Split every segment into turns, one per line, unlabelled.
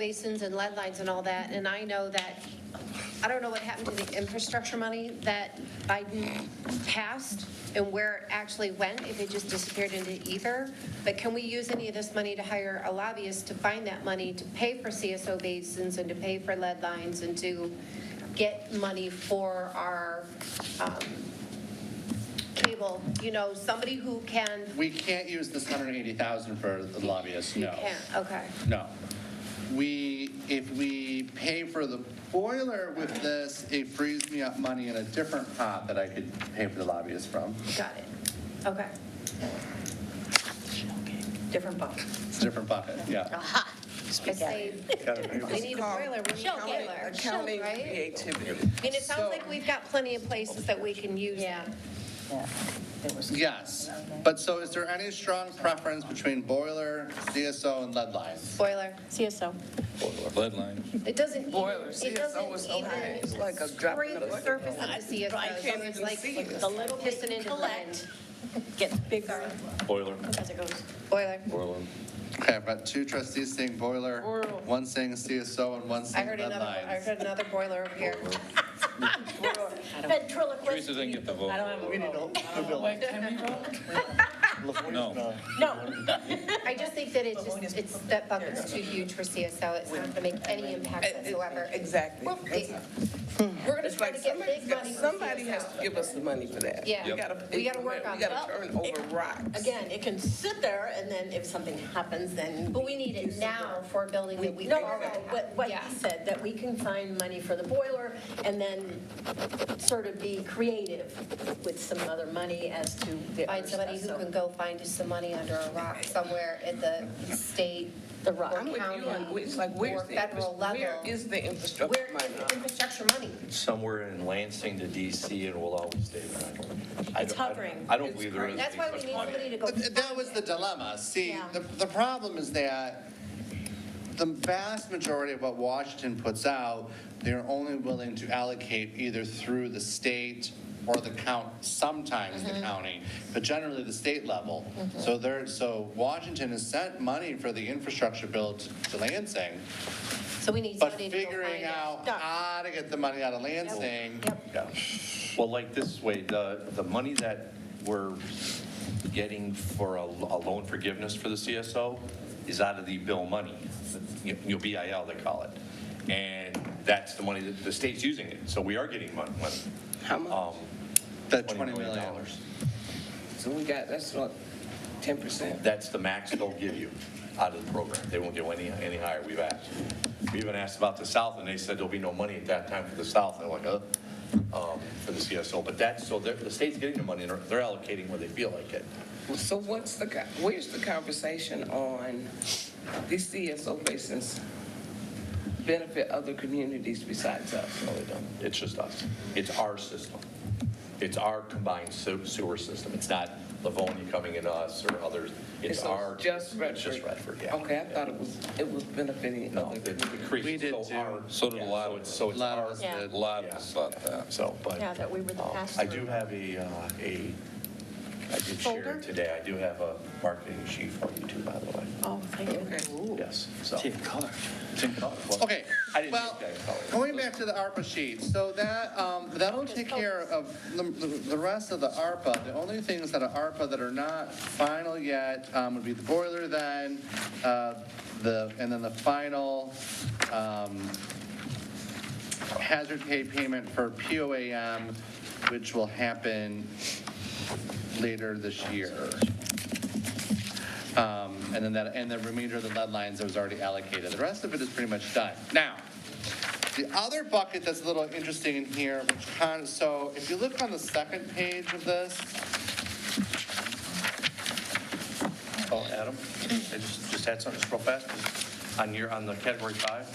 basins and lead lines and all that, and I know that, I don't know what happened to the infrastructure money that Biden passed and where it actually went, if it just disappeared into ether, but can we use any of this money to hire a lobbyist to find that money to pay for CSO basins and to pay for lead lines and to get money for our um, cable, you know, somebody who can,
We can't use this hundred and eighty thousand for the lobbyists,
you
no.
can, okay.
No. We, if we pay for the boiler with this, it frees me up money in a different pot that I could pay for the lobbyists from.
Got it. Okay. Different book.
It's a different bucket, yeah.
Aha.
I say, we need a boiler, we need a
She'll get it.
boiler,
She'll-
right? I
creativity.
mean, it sounds like we've got plenty of places that we can use that.
Yes, but so is there any strong preference between boiler, CSO, and lead lines?
Boiler.
CSO.
Bloodline.
It doesn't even,
Boiler,
it
CSO was
doesn't
so high,
even
it's like a drop
spray
in the
the
bucket.
surface of the
I
CSO, so
can't
there's
even
like
see it.
The little bit
pissing
we
into the
collect
wind.
gets bigger
Boiler.
as it goes.
Boiler.
Boiler.
Okay, I've got two trustees saying boiler, one saying CSO, and one
I
saying
heard
lead
another, I
lines.
heard another boiler over here.
Teresa
Ventriloquist.
didn't get the
I don't
vote.
have a vote.
No.
No,
I just think that it's just, it's, that bucket's too huge for CSO, it's not gonna make any impact whatsoever.
Exactly.
Well, it- We're gonna
It's
try
like
to get
somebody's
big
got-
money for
Somebody
CSO.
has to give us the money for that.
Yeah.
We
Yep.
gotta
We gotta work
implement-
on
We gotta
that.
turn over rocks.
again, it can sit there and then if something happens, then.
But we need it now for a building that we.
No, no,
already
no,
have.
what, what
Yeah.
he said, that we can find money for the boiler and then sort of be creative with some other money as to the
Find
other
somebody who
stuff, so-
can go find us some money under a rock somewhere at the state,
The rock.
or
I'm with you on,
county,
it's like,
or
where's the,
federal
infra- where
level.
is the
Where
infrastructure money?
is the infrastructure money?
somewhere in Lansing to DC and will always stay there. I don't- I
It's
don't- I don't-
hovering.
I don't believe there is.
That's why we
much
need
money.
somebody to go.
But That was the dilemma. See,
Yeah.
the, the problem is that the vast majority of what Washington puts out, they're only willing to allocate either through the state or the count, sometimes
Mm-hmm.
the county, but generally the state level. So there, so Washington has sent money for the infrastructure bill to to Lansing,
So we need
but
somebody to go
figuring
find
out
it.
how to get the money out of Lansing.
Yeah. Well, like this way, the, the money that we're getting for a a loan forgiveness for the CSO is out of the bill money, you know, BIL they call it. And that's the money that the state's using it, so we are getting mon- money.
How much?
Um,
That $20 million.
So we got, that's what, ten percent?
That's the max they'll give you out of the program. They won't go any, any higher, we've asked. We even asked about the South, and they said there'll be no money at that time for the South, and I'm like, uh, um, for the CSO. But that's, so they're- the state's getting the money, and they're allocating where they feel like it.
So what's the, co- where's the conversation on these CSO basins benefit other communities besides us?
No, they don't. It's just us. It's our system. It's our combined se- sewer system. It's not Livonia coming at us or others. It's
So
our.
Just
It's just Redford, yeah.
Okay, I thought it was, it was benefiting
No,
other
it it
communities.
creases.
We did
So
too.
our-
So did a
yeah,
lot
so
of
it's-
us.
So it's
A lot of
our.
us
Yeah.
did.
A lot of us thought that.
So, but.
Yeah, that we were the
um,
pass
I do have a, uh, a, I did share
Folder?
it today, I do have a marketing sheet for you too, by the way.
Oh, thank you.
Yes, so. It's in color. It's in color. Well,
Okay,
I didn't
well,
make that color.
going back to the ARPA sheet, so that, um, that'll take care of the, the rest of the ARPA. The only things that are ARPA that are not final yet, um, would be the boiler then, uh, the, and then the final, um, hazard pay payment for POAM, which will happen later this year. Um, And then that, and the remainder of the lead lines that was already allocated. The rest of it is pretty much done. Now, the other bucket that's a little interesting in here, which kind of, so if you look on the second page of this.
Oh, Adam, I just, just had something just real fast. On your, on the category five,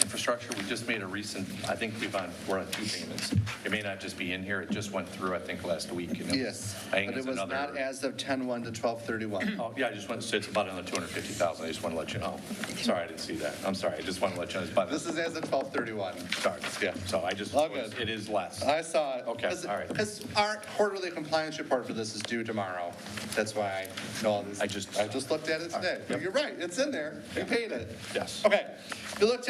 infrastructure, we just made a recent, I think we've on, we're on two payments. It may not just be in here, it just went through, I think, last week. and it-
Yes,
I
but
think
it
it's
was
another.
not as of 10/1 to 12/31.
Oh, yeah, I just want to say it's about another 250,000, I just want to let you know. Sorry, I didn't see that, I'm sorry, I just want to let you know, it's about,
This is as of 12/31.
sorry, yeah, so I just,
All good.
it is less.
I saw it.
Okay, all right.
Because our quarterly compliance report for this is due tomorrow. That's why I know all this.
I just-
I just looked at it
All right,
today.
yep.
You're right, it's in there. We paid it.
Yes.
Okay. You looked